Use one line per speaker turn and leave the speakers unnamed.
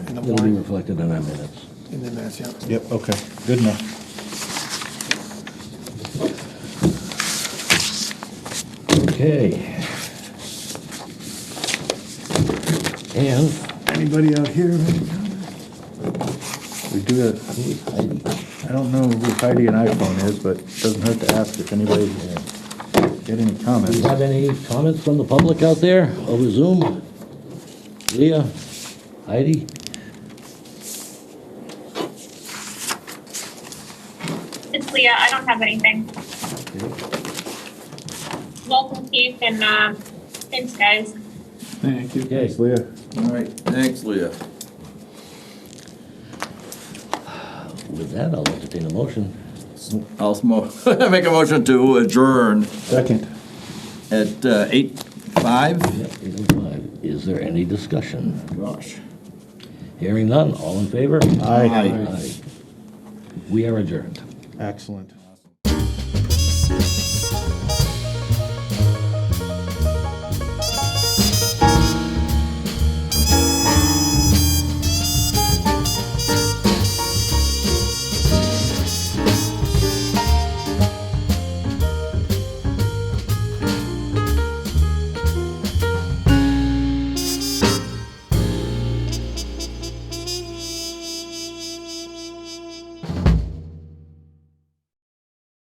the
It'll be
warrant,
reflected in our minutes.
in the minutes, yeah.
Yep, okay, good enough.
Okay. And
Anybody out here? We do have,
who is Heidi?
I don't know who Heidi and iPhone is, but it doesn't hurt to ask if anybody uh, had any
Do
comments.
you have any comments from the public out there over Zoom? Leah, Heidi?
It's Leah. I don't have anything. Welcome, Keith, and um, thanks, guys.
Thank you.
Okay.
Leah?
All right, thanks, Leah.
With that, I'll entertain a motion.
I'll mo- make a motion to adjourn
Second.
at uh, eight five.
Yeah, 8:05. Is there any discussion?
Gosh.
Hearing none, all in favor?
Aye.
Aye.
Aye. We are adjourned.
Excellent.